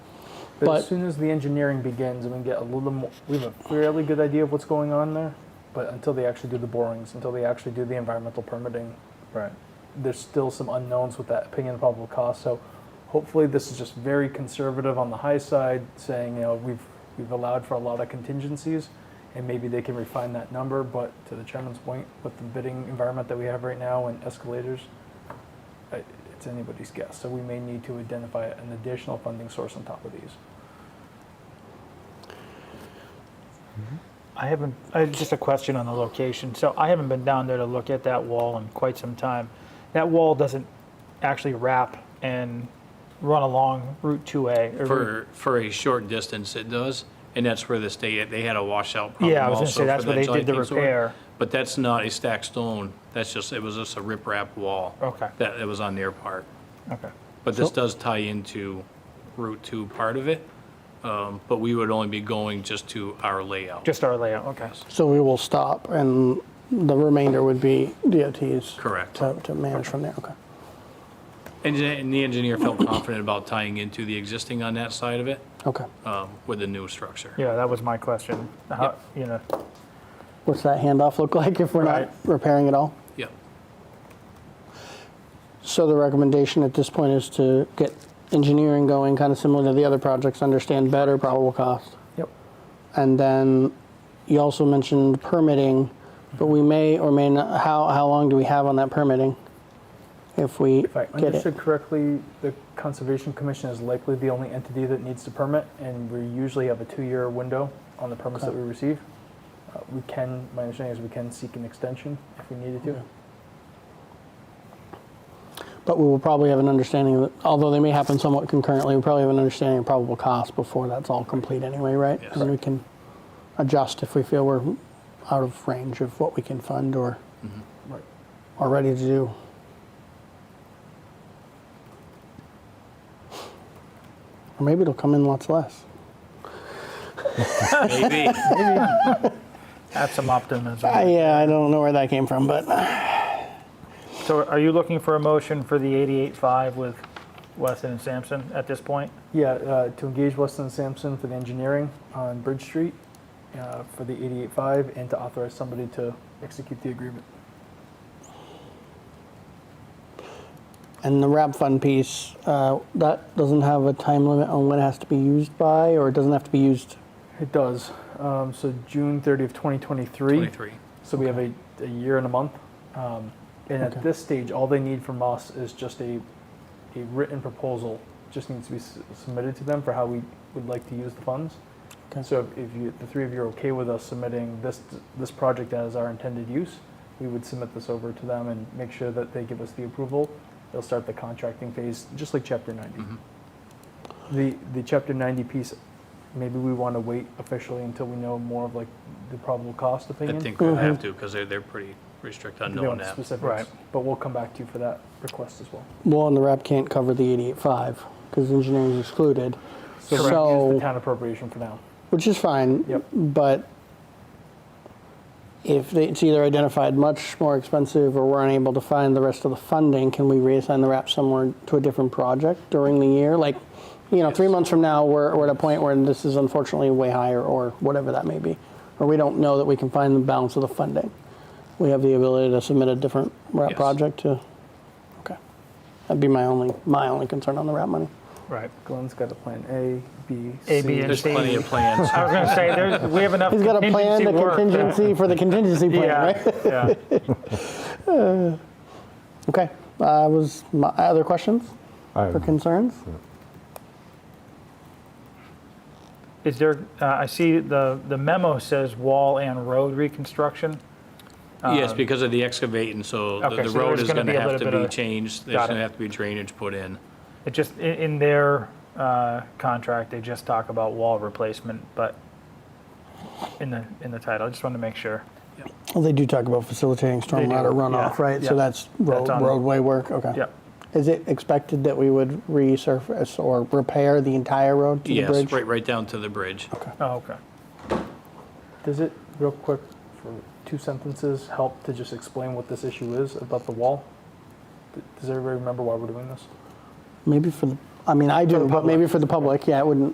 But But- as soon as the engineering begins and we get a little more, we have a fairly good idea of what's going on there. But until they actually do the borings, until they actually do the environmental permitting, Right. there's still some unknowns with that opinion of probable cause. So hopefully this is just very conservative on the high side, saying, you know, we've, we've allowed for a lot of contingencies and maybe they can refine that number. But to the chairman's point, with the bidding environment that we have right now and escalators, I- it's anybody's guess. So we may need to identify an additional funding source on top of these. I haven't, uh, just a question on the location. So I haven't been down there to look at that wall in quite some time. That wall doesn't actually wrap and run along Route 2A. or Route- For, for a short distance it does, and that's where this, they, they had a washout problem Yeah, I was gonna also say, that's for where that they did the giant kingsword. repair. But that's not a stacked stone, that's just, it was just a riprap wall. Okay. That, that was on their part. Okay, But this does tie into Route 2 part of it, um, but we would only be going just to our layout. just our layout, okay. So we will stop and the remainder would be DOT's. Correct. To, to manage from there, okay. And the- and the engineer felt confident about tying into the existing on that side of it Okay. um, with the new structure. Yeah, that was my question. How, you know, What's that handoff look like if we're Right. not repairing at all? Yep. So the recommendation at this point is to get engineering going, kind of similar to the other projects, understand better probable cost. yep. And then you also mentioned permitting, but we may or may not, how, how long do we have on that permitting? If we If I get it? understood correctly, the Conservation Commission is likely the only entity that needs to permit, and we usually have a two-year window on the permits that we receive. Uh, We can, my understanding is we can seek an extension if we needed to. But we will probably have an understanding, of it- although they may happen somewhat concurrently, we probably have an understanding of probable cost before that's all complete anyway, right? Yes. And we can adjust if we feel we're out of range of what we can fund or Right. are ready to do. Or maybe it'll come in lots less. Maybe. Add some I, optimism. yeah, I don't know where that came from, but uh, So are you looking for a motion for the 88.5 with Weston and Sampson at this point? Yeah, uh, to engage Weston and Sampson for the engineering on Bridge Street uh, for the 88.5 and to authorize somebody to execute the agreement. And the wrap fund piece, uh, that doesn't have a time limit on when it has to be used by, or it doesn't have to be used. It does. Um, So June 30 of 2023. 23. So we have a, a year and a month. Um, and Okay. at this stage, all they need from us is just a, a written proposal, just needs to be s- submitted to them for how we would like to use the funds. Okay. So if if you, the three of you are okay with us submitting this, this project as our intended use, we would submit this over to them and make sure that they give us the approval. They'll start the contracting phase, just like chapter ninety. The, the chapter ninety piece, maybe we want to wait officially until we know more of like the probable cost I opinion. think we'll have Mm-hmm. to, because they're, they're pretty restrict on They knowing want that. specifics, Right. But we'll come back to you for that request as well. Well, and the wrap can't cover the 88.5 because engineering is excluded. So we're gonna use the So, town appropriation for now. which is fine. Yep. But if they- it's either identified much more expensive or we're unable to find the rest of the funding, can we reassign the wrap somewhere to a different project during the year? Like, you know, three months from now, we're, we're at a point where this is unfortunately way higher or whatever that may be. Or we don't know that we can find the balance of the funding. We have the ability to submit a different wrap Yes. project to, okay. That'd be my only, my only concern on the wrap money. Right. Glenn's got a plan A, B, C. A, B, and There's C. plenty of plans. I was gonna say, there's, we have enough He's got a plan, contingency the work. that- contingency for the contingency plan, right? Yeah, yeah. Okay, uh, was my, other questions I- or concerns? Is there, uh, I see the, the memo says wall and road reconstruction. Yes, because of the excavating, so the- um, okay, the so road there's is gonna going to be a have little to bit be of- changed. There's Got going it. to have to be drainage put in. It just, in, in their uh, contract, they just talk about wall replacement, but in the, in the title, I just wanted to make sure. Well, they do talk about facilitating stormwater runoff, yeah, right? So yeah. that's road, That's on- roadway work, okay. Yep. Is it expected that we would resurface or repair the entire road to the Yes, bridge? right, right down to the bridge. Oh, okay. Does it, real quick, for two sentences, help to just explain what this issue is about the wall? D- Does everybody remember why we're doing this? Maybe for the, I mean, I do, but maybe for the public, yeah, it wouldn't,